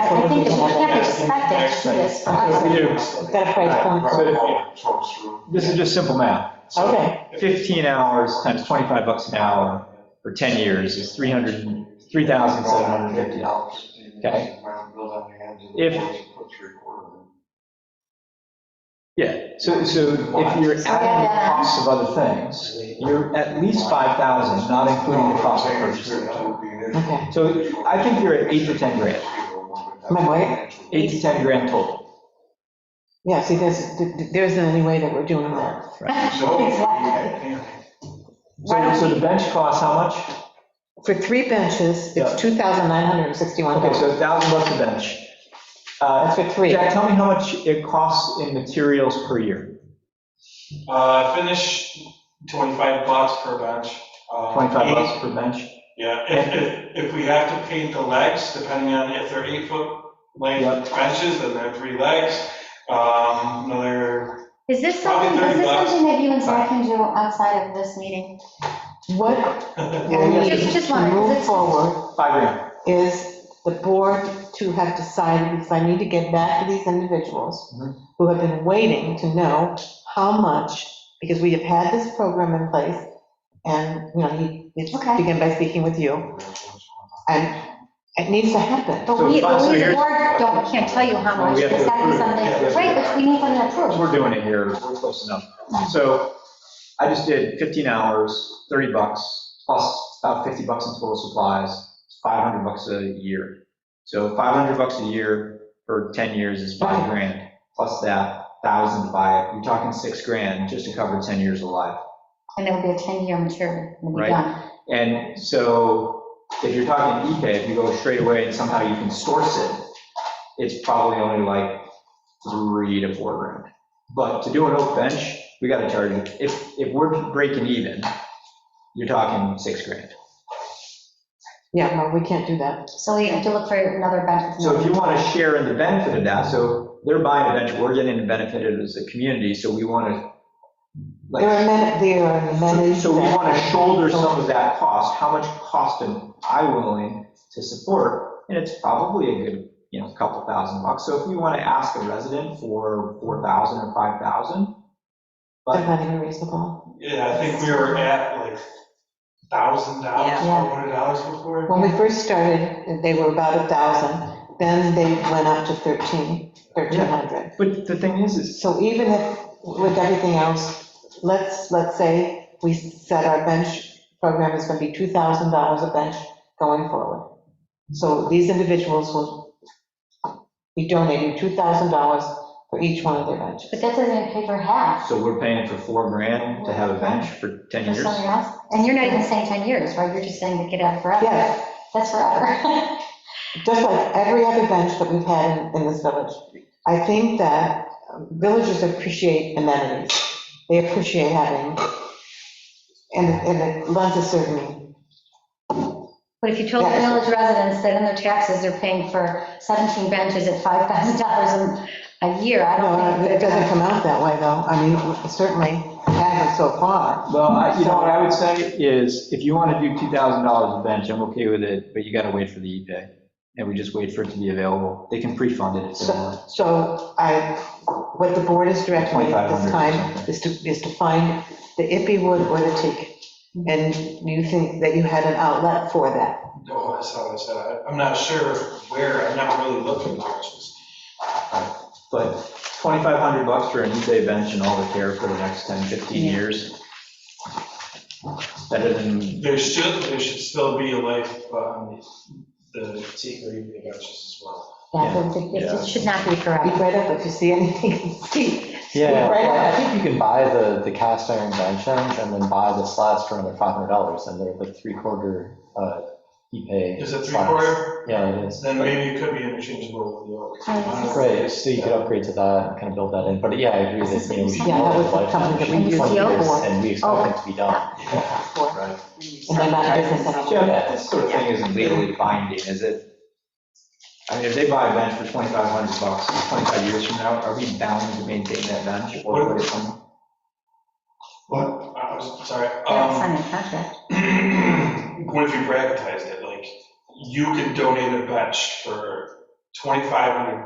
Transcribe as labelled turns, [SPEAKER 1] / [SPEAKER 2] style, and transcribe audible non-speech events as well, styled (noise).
[SPEAKER 1] think is we have expected
[SPEAKER 2] Next thing.
[SPEAKER 1] this from us.
[SPEAKER 3] We do.
[SPEAKER 1] Got a price point.
[SPEAKER 3] So if you-
[SPEAKER 2] Talks through.
[SPEAKER 3] This is just simple math. So
[SPEAKER 1] Okay.
[SPEAKER 3] 15 hours times 25 bucks an hour for 10 years is 300, $3,750. Okay. If- Yeah, so, so if you're adding the costs of other things, you're at least 5,000, not including the cost of purchasing.
[SPEAKER 1] Okay.
[SPEAKER 3] So I think you're at eight to 10 grand,
[SPEAKER 4] My what?
[SPEAKER 3] eight to 10 grand total.
[SPEAKER 4] Yeah, see, there's, there isn't any way that we're doing that.
[SPEAKER 1] Exactly.
[SPEAKER 3] So, so the bench costs how much?
[SPEAKER 4] For three benches,
[SPEAKER 3] Yeah.
[SPEAKER 4] it's
[SPEAKER 3] Okay,
[SPEAKER 4] $2,961.
[SPEAKER 3] so 1,000 bucks a bench. Uh,
[SPEAKER 4] That's for three.
[SPEAKER 3] Jack, tell me how much it costs in materials per year?
[SPEAKER 2] Uh, finish 25 bucks per bench. Uh,
[SPEAKER 3] 25
[SPEAKER 2] eight-
[SPEAKER 3] bucks per bench?
[SPEAKER 2] Yeah, if, if, if we have to paint the legs, depending on if they're eight foot length benches, then they're three legs. Um, another,
[SPEAKER 1] Is this
[SPEAKER 2] Probably
[SPEAKER 1] something, is
[SPEAKER 2] 30
[SPEAKER 1] this
[SPEAKER 2] bucks.
[SPEAKER 1] something that you and Zach can do outside of this meeting?
[SPEAKER 4] What
[SPEAKER 1] Yeah,
[SPEAKER 4] we
[SPEAKER 1] you
[SPEAKER 4] need
[SPEAKER 1] just- just
[SPEAKER 4] to
[SPEAKER 1] wanted-
[SPEAKER 4] move
[SPEAKER 1] it's-
[SPEAKER 4] forward
[SPEAKER 3] Five grand.
[SPEAKER 4] is the board to have decided, because I need to get back to these individuals
[SPEAKER 3] Mhm.
[SPEAKER 4] who have been waiting to know how much, because we have had this program in place, and, you know, he he
[SPEAKER 1] Okay.
[SPEAKER 4] began by speaking with you, and it needs to happen.
[SPEAKER 1] But
[SPEAKER 3] So
[SPEAKER 1] we,
[SPEAKER 3] fine,
[SPEAKER 1] but
[SPEAKER 3] so
[SPEAKER 1] we, the
[SPEAKER 3] here's-
[SPEAKER 1] board don't, can't tell you how
[SPEAKER 3] Well,
[SPEAKER 1] much,
[SPEAKER 3] we have
[SPEAKER 1] it's
[SPEAKER 3] to
[SPEAKER 1] gotta be
[SPEAKER 3] approve. Yeah,
[SPEAKER 1] something,
[SPEAKER 3] yeah.
[SPEAKER 1] right, but we need something approved.
[SPEAKER 3] We're doing it here, we're close enough. So I just did 15 hours, 30 bucks, plus about 50 bucks in total supplies, it's 500 bucks a year. So 500 bucks a year for 10 years is five grand, plus that, 1,000 to buy it, you're talking six grand just to cover 10 years of life.
[SPEAKER 1] And there will be a 10-year maturity, and we'll
[SPEAKER 3] Right.
[SPEAKER 1] be done.
[SPEAKER 3] And so if you're talking ePay, if you go straight away and somehow you can source it, it's probably only like three to four grand. But to do an oak bench, we gotta charge, if, if we're breaking even, you're talking six grand.
[SPEAKER 4] Yeah, no, we can't do that.
[SPEAKER 1] So we have to look for another benefit.
[SPEAKER 3] So if you want to share in the benefit of that, so they're buying a bench, we're getting the benefit of it as a community, so we want to,
[SPEAKER 4] There are
[SPEAKER 3] like,
[SPEAKER 4] men, there are
[SPEAKER 3] so
[SPEAKER 4] many.
[SPEAKER 3] so we want to shoulder some of that cost. How much cost am I willing to support? And it's probably a good, you know, couple thousand bucks. So if we want to ask a resident for 4,000 or 5,000,
[SPEAKER 4] That's
[SPEAKER 3] but
[SPEAKER 4] not even reasonable.
[SPEAKER 2] yeah, I think we were at like thousand dollars,
[SPEAKER 1] Yeah.
[SPEAKER 2] four hundred dollars before.
[SPEAKER 4] When we first started, they were about a thousand, then they went up to thirteen, thirteen hundred.
[SPEAKER 3] but the thing is, is
[SPEAKER 4] So even if, with everything else, let's, let's say we set our bench program is gonna be two thousand dollars a bench going forward. So these individuals will be donating two thousand dollars for each one of their benches.
[SPEAKER 1] But that doesn't even pay for half
[SPEAKER 3] so we're paying for four grand to have a bench for 10
[SPEAKER 1] for
[SPEAKER 3] years?
[SPEAKER 1] something else. And you're not even saying 10 years, right? You're just saying to get out forever.
[SPEAKER 4] Yes,
[SPEAKER 1] That's forever. (laughs)
[SPEAKER 4] just like every other bench that we've had in, in this village. I think that um, villagers appreciate amenities. They appreciate having, and, and it lends a certain,
[SPEAKER 1] But if you told the
[SPEAKER 4] Yeah.
[SPEAKER 1] village residents that in their taxes, they're paying for 17 benches at $5,000 a- a year, I don't
[SPEAKER 4] no,
[SPEAKER 1] think.
[SPEAKER 4] it doesn't come out that way though. I mean, certainly hasn't so far.
[SPEAKER 3] Well, I- you know, what I would say is, if you want to do $2,000 a bench, I'm okay with it, but you got to wait for the e-pay, and we just wait for it to be available. They can pre-fund it if they want.
[SPEAKER 4] So, so I, what the board is directing me at this
[SPEAKER 3] 2,500 or
[SPEAKER 4] time
[SPEAKER 3] something.
[SPEAKER 4] is to, is to find the ippy wood or the teak. And you think that you had an outlet for that?
[SPEAKER 2] Oh, that's how I said, I- I'm not sure where, I'm not really looking for this.
[SPEAKER 3] But 2,500 bucks for an eBay bench and all the care for the next 10, 15
[SPEAKER 4] Yeah.
[SPEAKER 3] years. Better than,
[SPEAKER 2] There should, there should still be a life, um, the secret evening benches as well.
[SPEAKER 1] Yeah, but it- It just should not be
[SPEAKER 4] Speak
[SPEAKER 1] forever.
[SPEAKER 4] right up if you see anything, (laughs) in the teak.
[SPEAKER 5] Yeah,
[SPEAKER 4] Right.
[SPEAKER 5] well, I think you can buy the, the cast iron benches and then buy the slats for another five hundred dollars, and they're the three quarter, uh, ePay.
[SPEAKER 2] Is it three
[SPEAKER 5] slats.
[SPEAKER 2] quarter?
[SPEAKER 5] Yeah, it is.
[SPEAKER 2] Then maybe it could be interchangeable with the oak.
[SPEAKER 5] Right, so you could upgrade to that and kind of build that in, but yeah, I agree that, you know, we should.
[SPEAKER 4] Yeah, that was
[SPEAKER 5] go with
[SPEAKER 4] something that we
[SPEAKER 5] lifetime,
[SPEAKER 4] used
[SPEAKER 5] twenty
[SPEAKER 1] the oak
[SPEAKER 5] years,
[SPEAKER 4] one.
[SPEAKER 5] And we
[SPEAKER 1] Oh.
[SPEAKER 5] expect it to be done. Right. Oh
[SPEAKER 4] and they're not in business anymore.
[SPEAKER 3] Jim, this sort of thing isn't legally binding, is it? I mean, if they buy a bench for 2,500 bucks, 25 years from now, are we bound to maintain that bench? or would it come-
[SPEAKER 2] What? I was, sorry.
[SPEAKER 1] They don't
[SPEAKER 2] um,
[SPEAKER 1] sign a contract.
[SPEAKER 2] (clears throat) What if you privatized it, like, you could donate a bench for twenty-five hundred